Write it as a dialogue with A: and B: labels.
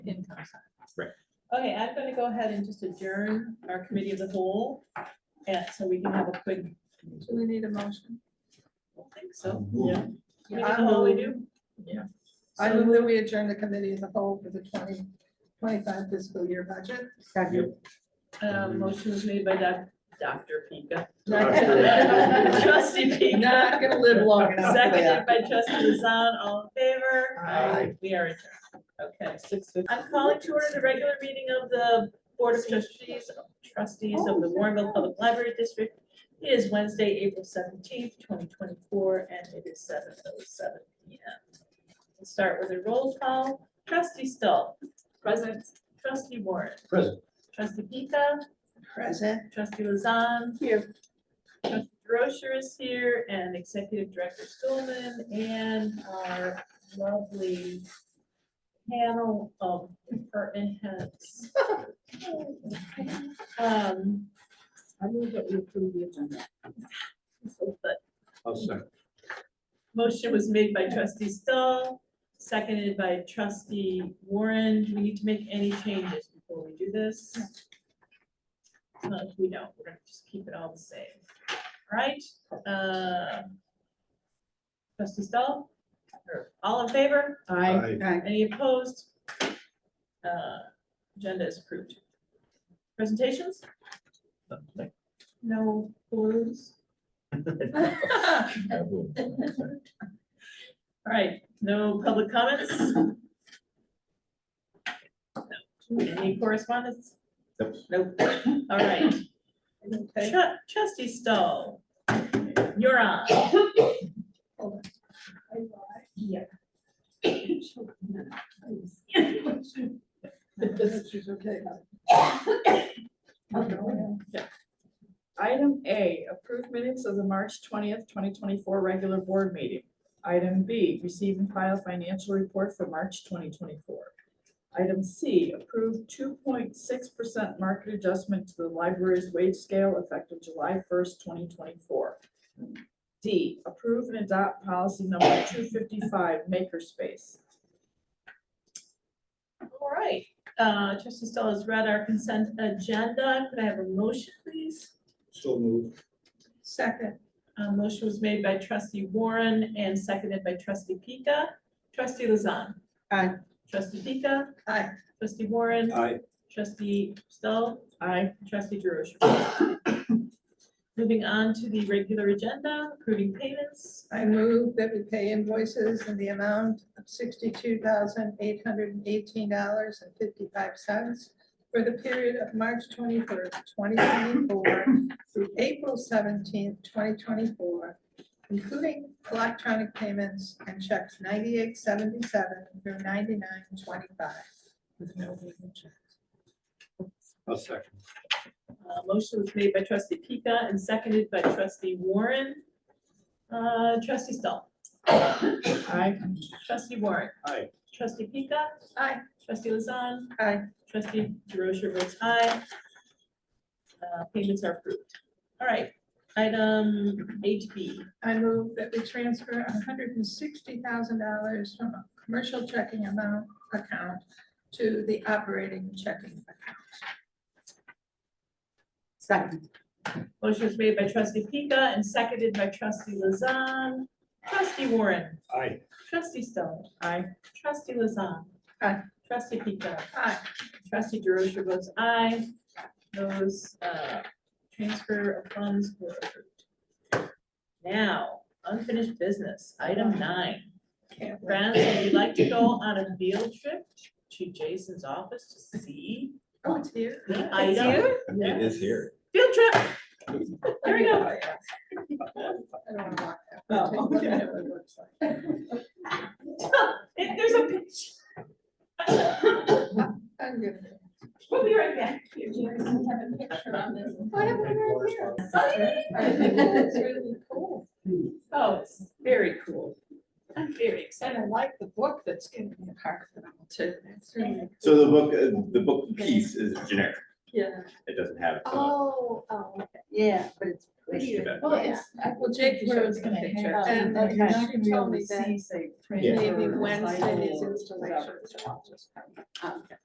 A: Okay, I'm gonna go ahead and just adjourn our committee of the whole, and so we can have a quick,
B: Do we need a motion?
A: I think so.
C: Yeah.
A: We do the whole, we do.
B: I move that we adjourn the committee as a whole for the 20 25 fiscal year budget.
C: Yep.
A: Uh, motion was made by Doc- Dr. Pika.
B: Not
A: Trustee Pika,
B: gonna live long enough. for that.
A: seconded by trustee Hassan, all in favor?
B: Aye.
A: We are adjourned. Okay, six fifty. I'm calling to order the regular meeting of the Board of Trustees, trustees of the Warrenville Public Library District. It is Wednesday, April seventeenth, twenty twenty-four, and it is seven oh seven P M. We'll start with a roll call. Trustee Stoll. Present. Trustee Warren.
C: Present.
A: Trustee Pika.
B: Present.
A: Trustee Lazan.
B: Here.
A: Trustee Rocher is here and Executive Director Stulman and our lovely panel of department heads. Um,
D: I move that we approve the agenda.
A: but
C: I'll second.
A: Motion was made by trustee Stoll, seconded by trustee Warren. Do we need to make any changes before we do this? No, we don't. We're gonna just keep it all the same. All right, uh. Trustee Stoll? Or All in favor?
C: Aye.
A: Any opposed? Uh, agenda is approved. Presentations? No balloons? All right, no public comments? Any correspondence?
C: Nope.
A: Nope. All right. Tru- Trustee Stoll, you're on.
D: Yeah.
B: She's okay.
D: Item A, approve minutes of the March twentieth, twenty twenty-four regular board meeting. Item B, receive and file financial report for March twenty twenty-four. Item C, approve two point six percent market adjustment to the library's wage scale effective July first, twenty twenty-four. D, approve and adopt policy number two fifty-five, makerspace.
A: All right, uh, trustee Stoll has read our consent agenda. Could I have a motion, please?
C: So moved.
B: Second.
A: Uh, motion was made by trustee Warren and seconded by trustee Pika. Trustee Lazan.
B: Aye.
A: Trustee Pika.
B: Aye.
A: Trustee Warren.
C: Aye.
A: Trustee Stoll.
D: Aye.
A: Trustee DeRosa. Moving on to the regular agenda, approving payments.
B: I move that we pay invoices in the amount of sixty-two thousand eight hundred and eighteen dollars and fifty-five cents for the period of March twenty-third, twenty twenty-four through April seventeenth, twenty twenty-four, including electronic payments and checks ninety-eight seventy-seven through ninety-nine twenty-five. with no hidden check.
C: I'll second.
A: Uh, Motion was made by trustee Pika and seconded by trustee Warren. Uh, Trustee Stoll.
D: Aye.
A: Trustee Warren.
C: Aye.
A: Trustee Pika.
B: Aye.
A: Trustee Lazan.
B: Aye.
A: Trustee DeRosa votes aye. Uh, Payments are approved. All right, item HB.
B: I move that we transfer hundred and sixty thousand dollars from a commercial checking amount account to the operating checking account.
D: Second.
A: Motion was made by trustee Pika and seconded by trustee Lazan. Trustee Warren.
C: Aye.
A: Trustee Stone.
D: Aye.
A: Trustee Lazan.
B: Aye.
A: Trustee Pika.
B: Aye.
A: Trustee DeRosa votes aye. Those uh, transfer of funds were approved. Now, unfinished business, item nine.
B: Can't wait.
A: Friends, would you like to go on a field trip to Jason's office to see
B: Oh, it's here.
A: the item?
E: It is here.
A: Field trip. There we go.
B: I Oh, don't wanna
A: Oh,
B: walk that. Oh.
A: There- There's a picture.
B: I'm good.
A: We'll be right back.
B: Oh, I have one right here.
E: It's
B: really cool.
A: Oh, it's very cool. I'm very excited.
B: And I like the book that's gonna be a part of it too. That's really-
E: So the book, uh, the book piece is generic.
B: Yeah.
E: It doesn't have. uh, a-
F: Oh, oh, okay.
G: Yeah, but it's
E: it's
G: prettier.
E: about-
F: Well, it's,
B: Well, Jake
D: Where it's gonna
B: hang
D: hang
B: out.
D: out.
B: And
G: Okay.
B: you
D: You should be
B: told
D: able
B: me
D: to
B: that
D: see, say,
E: Yeah.
B: maybe
D: printer,
B: Wednesday is
D: title,
B: installation.
D: whatever.
F: um,